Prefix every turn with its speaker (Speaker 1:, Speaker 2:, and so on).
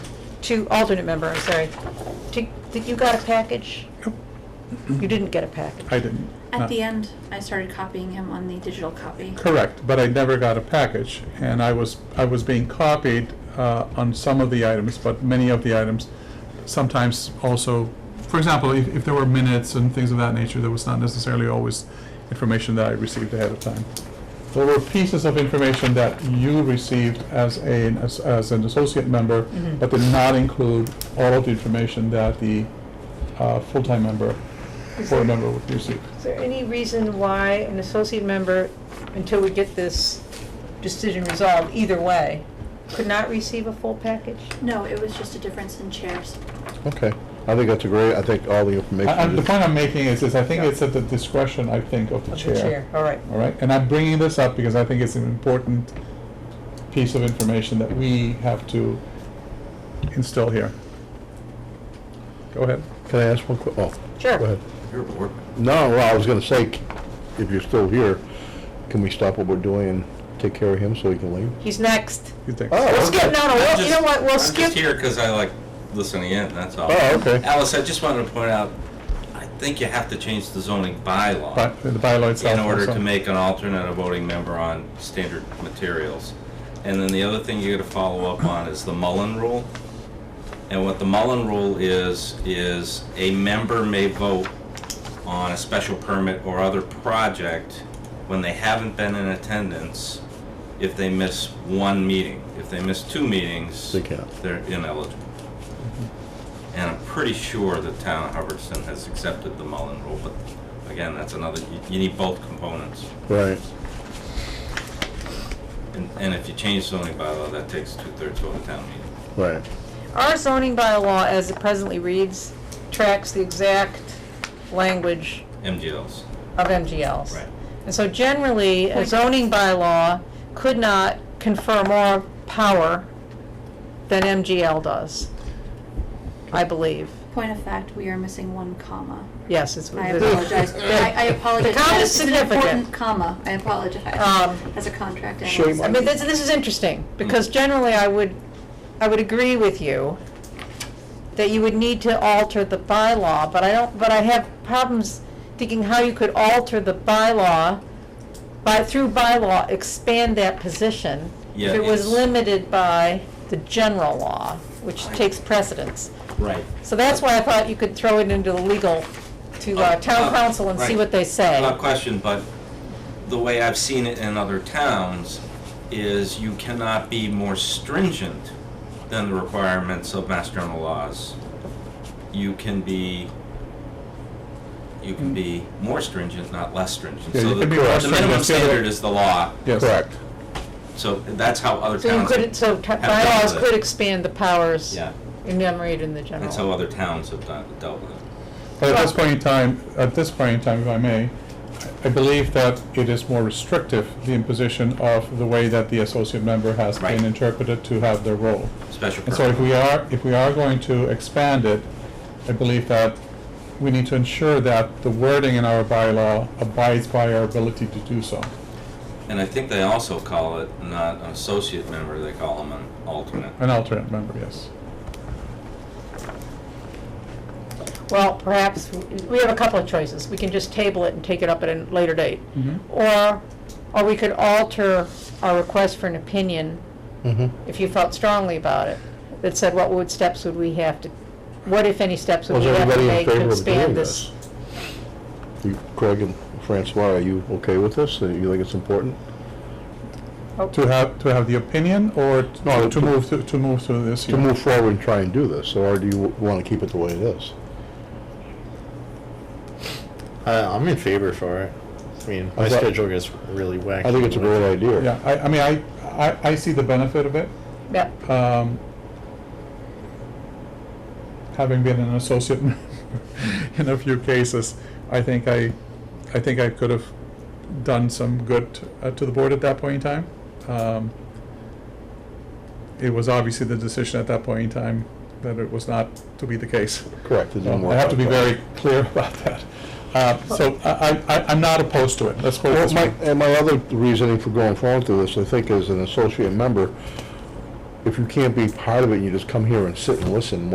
Speaker 1: to alternate member, I'm sorry. Did did you got a package?
Speaker 2: Nope.
Speaker 1: You didn't get a package.
Speaker 2: I didn't.
Speaker 3: At
Speaker 2: not-
Speaker 3: the end, I started copying him on the digital copy.
Speaker 2: Correct, but I never got a package, and I was, I was being copied uh, on some of the items, but many of the items, sometimes also, for example, if if there were minutes and things of that nature, there was not necessarily always information that I received ahead of time. There were pieces of information that you received as a, as- as an associate member,
Speaker 3: Mm-hmm.
Speaker 1: Mhm.
Speaker 2: but did not include all of the information that the uh, full-time member,
Speaker 1: Is
Speaker 2: board
Speaker 1: there-
Speaker 2: member would receive.
Speaker 1: Is there any reason why an associate member, until we get this decision resolved, either way, could not receive a full package?
Speaker 3: No, it was just a difference in chairs.
Speaker 4: Okay, I think that's a great, I think all the information.
Speaker 2: I- I- The
Speaker 4: is-
Speaker 2: point I'm making is, is I think
Speaker 1: Yeah.
Speaker 2: it's at the discretion, I think, of the
Speaker 1: Of
Speaker 2: chair.
Speaker 1: the chair, all right.
Speaker 2: All right, and I'm bringing this up because I think it's an important piece of information that we have to instill here. Go ahead.
Speaker 4: Can I ask one quick, oh.
Speaker 1: Sure.
Speaker 4: Go ahead.
Speaker 5: You're bored.
Speaker 4: No, well, I was gonna say, c- if you're still here, can we stop what we're doing and take care of him so he can leave?
Speaker 1: He's next.
Speaker 2: You think?
Speaker 4: Oh.
Speaker 1: We'll skip, no, no,
Speaker 5: I'm
Speaker 1: we'll- you
Speaker 5: just-
Speaker 1: know what, we'll
Speaker 5: I'm just
Speaker 1: skip.
Speaker 5: here because I like listening in, that's all.
Speaker 4: Oh, okay.
Speaker 5: Alice, I just wanted to point out, I think you have to change the zoning bylaw
Speaker 2: But the bylaw itself.
Speaker 5: in order
Speaker 2: also.
Speaker 5: to make an alternate a voting member on standard materials. And then the other thing you gotta follow up on is the Mullen Rule. And what the Mullen Rule is, is a member may vote on a special permit or other project when they haven't been in attendance if they miss one meeting. If they miss two meetings,
Speaker 4: They can't.
Speaker 5: they're ineligible. And I'm pretty sure the town of Hubbardston has accepted the Mullen Rule, but again, that's another, you, you need both components.
Speaker 4: Right.
Speaker 5: And, and if you change zoning bylaw, that takes two-thirds vote at town meeting.
Speaker 4: Right.
Speaker 1: Our zoning bylaw, as it presently reads, tracks the exact language
Speaker 5: MGLs.
Speaker 1: of MGLs.
Speaker 5: Right.
Speaker 1: And so generally, a zoning bylaw could not confer more power than MGL does, I believe.
Speaker 3: Point of fact, we are missing one comma.
Speaker 1: Yes, it's.
Speaker 3: I apologize. I, I apologize.
Speaker 1: The comma is
Speaker 3: That an important
Speaker 1: significant.
Speaker 3: comma. I apologize.
Speaker 1: Um,
Speaker 3: As a contract
Speaker 4: Shame
Speaker 3: analyst.
Speaker 1: I mean, this, this is interesting,
Speaker 5: Hmm.
Speaker 1: because generally I would, I would agree with you that you would need to alter the bylaw, but I don't, but I have problems thinking how you could alter the bylaw by, through bylaw, expand that position. If
Speaker 5: Yeah,
Speaker 1: it was
Speaker 5: it's-
Speaker 1: limited by the general law, which takes precedence.
Speaker 5: Right.
Speaker 1: So that's why I thought you could throw it into the legal, to, uh, town council and see what they say.
Speaker 5: Not question, but the way I've seen it in other towns is you cannot be more stringent than the requirements of mass general laws. You can be, you can be more stringent, not less stringent.
Speaker 2: Yeah,
Speaker 5: So
Speaker 2: you
Speaker 5: the
Speaker 2: can be more
Speaker 5: the minimum
Speaker 2: stringent, yeah, but-
Speaker 5: standard is the law,
Speaker 2: Yes.
Speaker 4: Correct.
Speaker 5: so that's how other
Speaker 1: So you
Speaker 5: towns,
Speaker 1: could,
Speaker 5: have-
Speaker 1: so t-
Speaker 5: done
Speaker 1: bylaws
Speaker 5: that.
Speaker 1: could expand the powers
Speaker 5: yeah,
Speaker 1: enumerated in the general.
Speaker 5: that's how other towns have done, dealt with it.
Speaker 2: But at this point in time, at this point in time, if I may, I believe that it is more restrictive, the imposition of the way that the associate member has
Speaker 5: Right.
Speaker 2: been interpreted to have their role.
Speaker 5: Special
Speaker 2: And so if
Speaker 5: permit.
Speaker 2: we are, if we are going to expand it, I believe that we need to ensure that the wording in our bylaw abides by our ability to do so.
Speaker 5: And I think they also call it not an associate member, they call them an alternate.
Speaker 2: An alternate member, yes.
Speaker 1: Well, perhaps, we have a couple of choices. We can just table it and take it up at a later date.
Speaker 2: Mhm.
Speaker 4: Mm-hmm.
Speaker 1: Or, or we could alter our request for an opinion,
Speaker 4: Mm-hmm.
Speaker 1: if you felt strongly about it, that said, what would steps would we have to, what if any steps would
Speaker 4: Was
Speaker 1: we have to
Speaker 4: everybody in
Speaker 1: make to
Speaker 4: favor of doing
Speaker 1: expand this?
Speaker 4: this? You, Craig and Francois, are you okay with this? Do you think it's important?
Speaker 2: To have, to have the opinion or t-
Speaker 4: No,
Speaker 2: to
Speaker 4: to-
Speaker 2: move, to to move to this
Speaker 4: To
Speaker 2: year?
Speaker 4: move forward and try and do this, or do you want to keep it the way it is?
Speaker 6: Uh, I'm in favor for it. I mean, my
Speaker 4: I thought-
Speaker 6: schedule gets really wacky.
Speaker 4: I think it's a great idea.
Speaker 2: Yeah, I, I mean, I, I, I see the benefit of it.
Speaker 1: Yep.
Speaker 2: um, having been an associate member in a few cases, I think I, I think I could have done some good uh, to the board at that point in time. Um, it was obviously the decision at that point in time that it was not to be the case.
Speaker 4: Correct. it didn't
Speaker 2: So
Speaker 4: work
Speaker 2: I have to
Speaker 4: out
Speaker 2: be
Speaker 4: that way.
Speaker 2: very clear about that. Uh, so I, I- I, I'm not opposed to it. Let's put it
Speaker 4: Well,
Speaker 2: this
Speaker 4: my,
Speaker 2: way.
Speaker 4: and my other reasoning for going forward with this, I think, as an associate member, if you can't be part of it, you just come here and sit and listen,